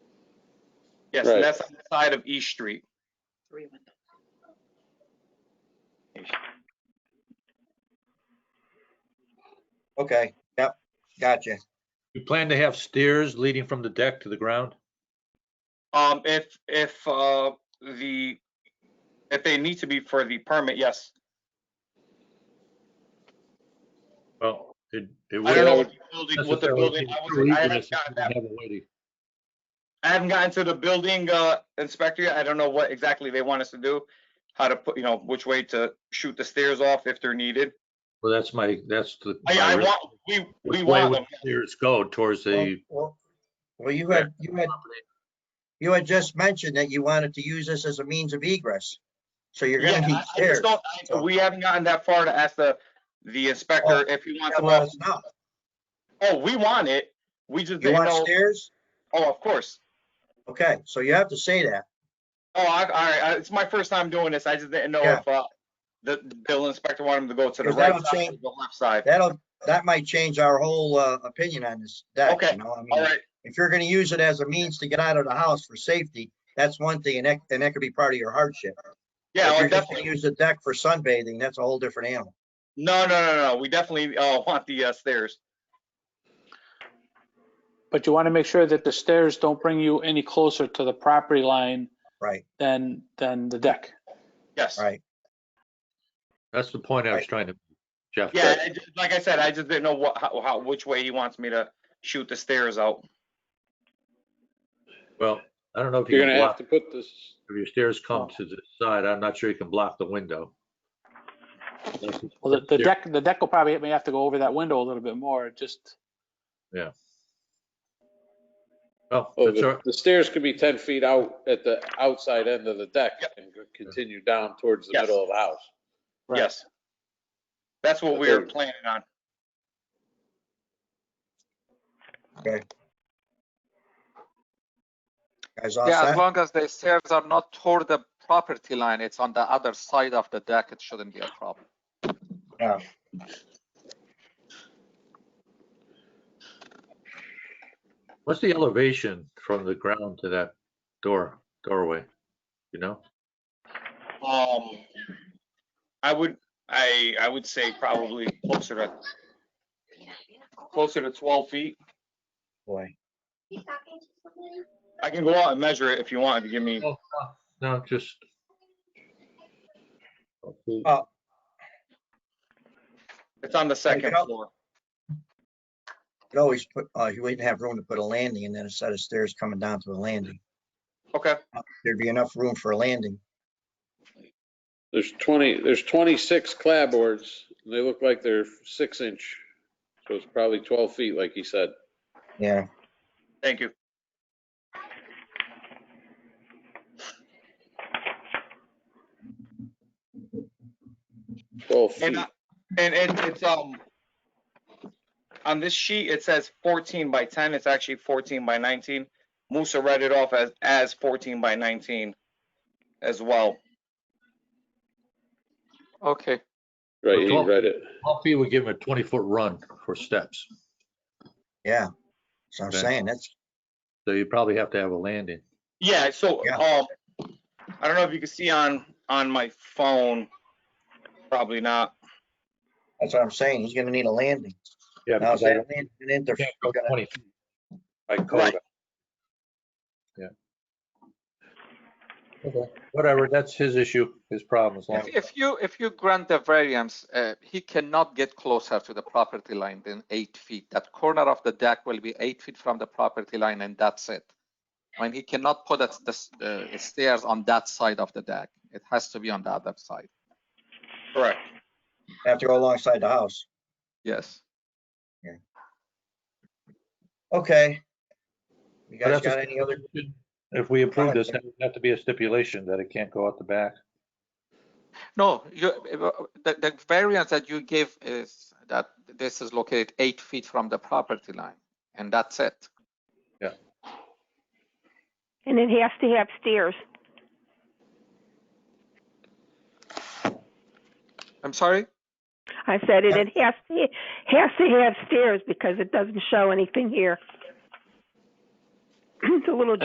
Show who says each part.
Speaker 1: Yes, and
Speaker 2: Right.
Speaker 1: that's on the side of East Street.
Speaker 3: three windows.
Speaker 4: Okay, yep, gotcha.
Speaker 5: You plan to have stairs leading from the deck to the ground?
Speaker 1: Um, if, if, uh, the, if they need to be for the permit, yes.
Speaker 5: Well, it, it
Speaker 1: I don't know
Speaker 5: would.
Speaker 1: what the building, what the building, I wasn't- I haven't gotten that- I haven't gotten to the building, uh, inspector yet. I don't know what exactly they want us to do. How to put, you know, which way to shoot the stairs off if they're needed.
Speaker 5: Well, that's my, that's the.
Speaker 1: I, I
Speaker 5: my-
Speaker 1: want, we,
Speaker 5: which
Speaker 1: we
Speaker 5: way
Speaker 1: want
Speaker 5: would
Speaker 1: them.
Speaker 5: the Stairs go towards the.
Speaker 4: Well, well, you had, you had, you had just mentioned that you wanted to use this as a means of egress. So you're
Speaker 1: Yeah,
Speaker 4: gonna
Speaker 1: I-
Speaker 4: need
Speaker 1: I just
Speaker 4: stairs.
Speaker 1: don't, I- we haven't gotten that far to ask the, the inspector
Speaker 4: Oh.
Speaker 1: if he wants
Speaker 4: Yeah,
Speaker 1: them
Speaker 4: well,
Speaker 1: off.
Speaker 4: it's not.
Speaker 1: Oh, we want it. We just
Speaker 4: You
Speaker 1: didn't
Speaker 4: want
Speaker 1: know.
Speaker 4: stairs?
Speaker 1: Oh, of course.
Speaker 4: Okay, so you have to say that.
Speaker 1: Oh, I, all right. I- It's my first time doing this. I just didn't know
Speaker 4: Yeah.
Speaker 1: if, uh, the the bill inspector wanted him to go to the
Speaker 4: Because
Speaker 1: right
Speaker 4: that'll
Speaker 1: side or
Speaker 4: change-
Speaker 1: the left side.
Speaker 4: That'll, that might change our whole, uh, opinion on this deck,
Speaker 1: Okay,
Speaker 4: you know, I
Speaker 1: All
Speaker 4: mean,
Speaker 1: right.
Speaker 4: if you're gonna use it as a means to get out of the house for safety, that's one thing, and that, and that could be part of your hardship.
Speaker 1: Yeah,
Speaker 4: If
Speaker 1: oh,
Speaker 4: you're just gonna
Speaker 1: definitely.
Speaker 4: use the deck for sunbathing, that's a whole different animal.
Speaker 1: No, no, no, no. We definitely, uh, want the uh, stairs.
Speaker 6: But you want to make sure that the stairs don't bring you any closer to the property line
Speaker 4: Right,
Speaker 6: than, than the deck.
Speaker 1: Yes.
Speaker 4: right.
Speaker 5: That's the point I was trying to, Jeff.
Speaker 1: Yeah, I just- like I said, I just didn't know what, how, how, which way he wants me to shoot the stairs out.
Speaker 5: Well, I don't know if you
Speaker 7: You're
Speaker 5: can
Speaker 7: gonna
Speaker 5: block,
Speaker 7: have to put this,
Speaker 5: if your stairs come to the side, I'm not sure you can block the window. That's-
Speaker 6: Well, the, the
Speaker 5: Yeah.
Speaker 6: deck, the deck will probably, may have to go over that window a little bit more, just,
Speaker 5: Well,
Speaker 7: oh,
Speaker 5: that's all
Speaker 7: the
Speaker 5: right.
Speaker 7: the stairs could be 10 feet out at the outside end of the deck
Speaker 1: Yep.
Speaker 7: and go- continue down towards the
Speaker 1: Yes.
Speaker 7: middle of the house.
Speaker 6: Right.
Speaker 1: Yes. That's what we
Speaker 7: Okay.
Speaker 1: were planning on.
Speaker 4: Guys, all
Speaker 8: Yeah, as
Speaker 4: set?
Speaker 8: long as the stairs are not toward the property line, it's on the other side of the deck, it shouldn't be a problem.
Speaker 5: What's the elevation from the ground to that door, doorway? You know,
Speaker 1: Um, I would, I, I would say probably closer to, closer to twelve feet.
Speaker 4: Boy,
Speaker 1: I can go out and measure it if you want, if you give me,
Speaker 5: no, just.
Speaker 1: it's on the second
Speaker 4: Michael?
Speaker 1: floor.
Speaker 4: could always put, uh, you wouldn't have room to put a landing and then a set of stairs coming down to a landing.
Speaker 1: Okay,
Speaker 4: There'd be enough room for a landing.
Speaker 7: There's 20, there's 26 clapboards, and they look like they're six inch, so it's probably 12 feet, like he said.
Speaker 4: Yeah,
Speaker 1: thank you.
Speaker 7: Twelve
Speaker 1: And,
Speaker 7: feet.
Speaker 1: I- and and it's, um, on this sheet, it says fourteen by ten, it's actually fourteen by nineteen. Musa read it off as, as fourteen by nineteen as well.
Speaker 8: Okay.
Speaker 7: Right, he
Speaker 5: 12
Speaker 7: read it.
Speaker 5: Humpy would give him a twenty-foot run for steps,
Speaker 4: yeah. So I'm
Speaker 5: Okay.
Speaker 4: saying, that's,
Speaker 5: so you probably have to have a landing.
Speaker 1: Yeah, so,
Speaker 4: Yeah.
Speaker 1: um, I don't know if you can see on, on my phone, probably not.
Speaker 4: that's what I'm saying. He's gonna need a landing.
Speaker 5: Yeah.
Speaker 4: Now,
Speaker 5: because
Speaker 4: is that landing an inter-
Speaker 5: can't go
Speaker 4: gonna-
Speaker 5: 20 feet.
Speaker 7: I called
Speaker 1: Right.
Speaker 7: it.
Speaker 5: Whatever, that's his issue, his problem, as long
Speaker 8: If,
Speaker 5: as
Speaker 8: if you, if you grant the variance, uh, he cannot get closer to the property line than eight feet. That corner of the deck will be eight feet from the property line and that's it. And he cannot put us- the s- uh, stairs on that side of the deck. It has to be on the other side.
Speaker 1: Correct.
Speaker 4: Have to go alongside the house.
Speaker 8: Yes.
Speaker 4: Okay. You
Speaker 5: But
Speaker 4: guys
Speaker 5: that's
Speaker 4: got
Speaker 5: a
Speaker 4: any other,
Speaker 5: If we approve this,
Speaker 4: Okay.
Speaker 5: that would have to be a stipulation that it can't go out the back.
Speaker 8: No, you, the, the variance that you give is that this is located eight feet from the property line and that's it.
Speaker 9: And it has to have stairs.
Speaker 8: I'm sorry?
Speaker 9: I said it, it has to, has to have stairs because it doesn't show anything here. It's a little